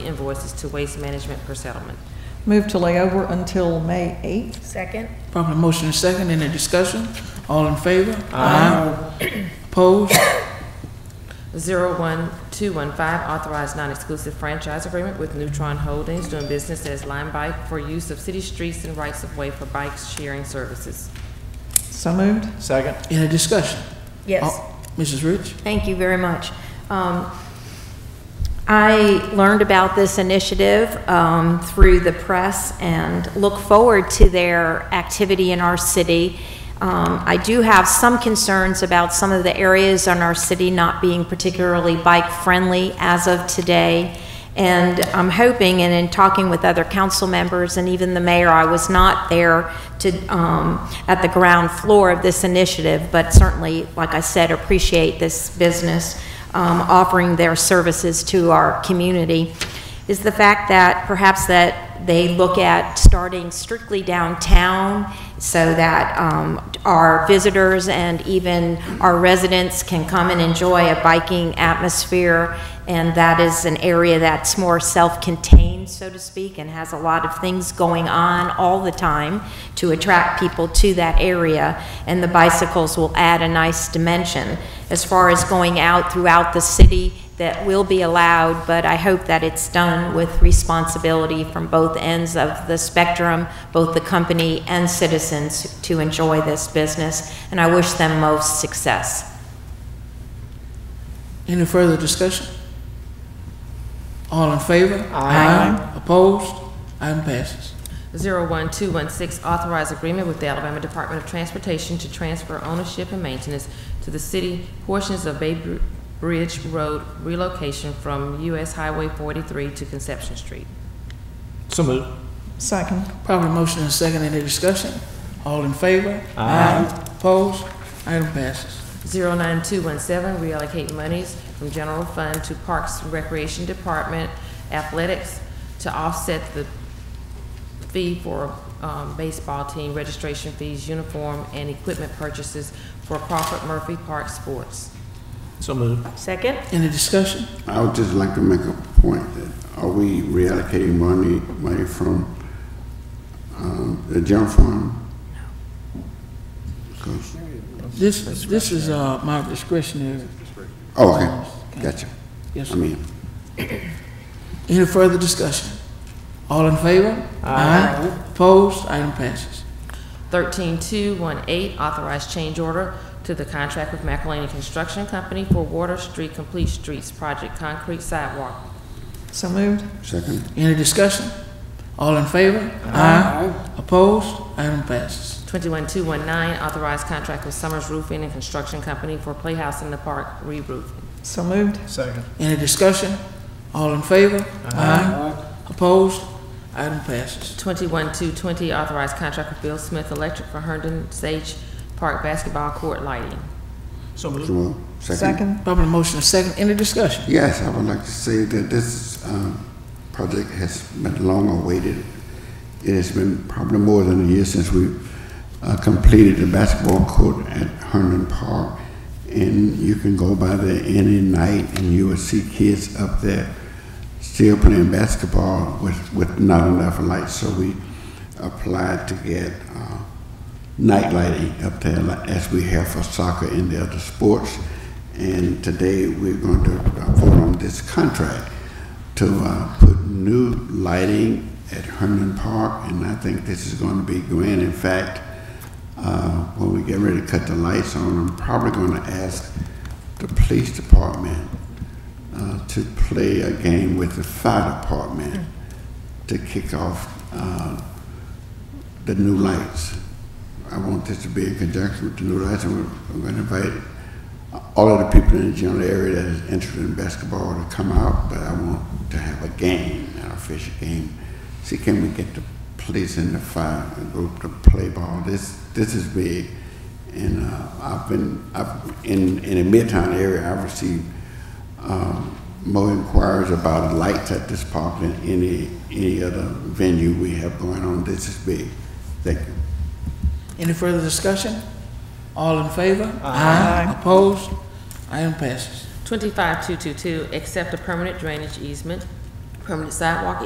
invoices to Waste Management per settlement. Move to lay over until May 8th. Second. Properly motion and second, any discussion? All in favor? Aye. Opposed? 01215, authorized non-exclusive franchise agreement with Neutron Holdings doing business as Lime Bike for use of city streets and rights of way for bike sharing services. So moved. Second. Any discussion? Yes. All- Mrs. Rich? Thank you very much. Um, I learned about this initiative um, through the press and look forward to their activity in our city. Um, I do have some concerns about some of the areas in our city not being particularly bike-friendly as of today. And I'm hoping, and in talking with other council members and even the mayor, I was not there to, um, at the ground floor of this initiative, but certainly, like I said, appreciate this business, um, offering their services to our community, is the fact that perhaps that they look at starting strictly downtown so that, um, our visitors and even our residents can come and enjoy a biking atmosphere and that is an area that's more self-contained, so to speak, and has a lot of things going on all the time to attract people to that area, and the bicycles will add a nice dimension. As far as going out throughout the city, that will be allowed, but I hope that it's done with responsibility from both ends of the spectrum, both the company and citizens to enjoy this business, and I wish them most success. Any further discussion? All in favor? Aye. Opposed? Item passes. 01216, authorized agreement with the Alabama Department of Transportation to transfer ownership and maintenance to the city portions of Bay Br- Bridge Road relocation from US Highway 43 to Conception Street. So moved. Second. Properly motion and second, any discussion? All in favor? Aye. Opposed? Item passes. 09217, reallocate monies from general fund to Parks and Recreation Department athletics to offset the fee for um, baseball team registration fees, uniform, and equipment purchases for Crawford Murphy Park Sports. So moved. Second? Any discussion? I would just like to make a point that are we reallocating money, money from um, the general fund? Because- This, this is, uh, my discretionary. Oh, okay, gotcha. Yes, I sir. mean, Any further discussion? All in favor? Aye. Opposed? Item passes. 13218, authorized change order to the contract with McElhaney Construction Company for Water Street Complete Streets Project Concrete Sidewalk. So moved. second, Any discussion? All in favor? Aye. Opposed? Item passes. 21219, authorized contract with Summers Roofing and Construction Company for Playhouse in the Park re-roofing. So moved. Second. Any discussion? All in favor? Aye. Opposed? Item passes. 21-220, authorized contract with Bill Smith Electric for Herndon Sage Park basketball court lighting. So moved. Jamal, second. Second. Properly motion is second. Any discussion? Yes, I would like to say that this um, project has been long awaited. It has been probably more than a year since we uh, completed the basketball court at Herndon Park. And you can go by there any night and you will see kids up there still playing basketball with, with not enough lights. So we applied to get uh, night lighting up there like- as we have for soccer and the other sports. And today, we're going to uh, vote on this contract to uh, put new lighting at Herndon Park, and I think this is going to be grand. In fact, uh, when we get ready to cut the lights on, I'm probably going to ask the police department uh, to play a game with the fire department to kick off uh, the new lights. I want this to be in conjunction with the new lights, and we're- I'm going to invite all of the people in the general area that is interested in basketball to come out, but I want to have a game, an official game. See, can we get the police and the fire group to play ball? This, this is big, and uh, I've been, I've, in, in the Midtown area, I've received um, more inquiries about lights at this park than any, any other venue we have going on. This is big. Thank you. Any further discussion? All in favor? Aye. Opposed? Item passes. 25222, accept a permanent drainage easement permanent sidewalk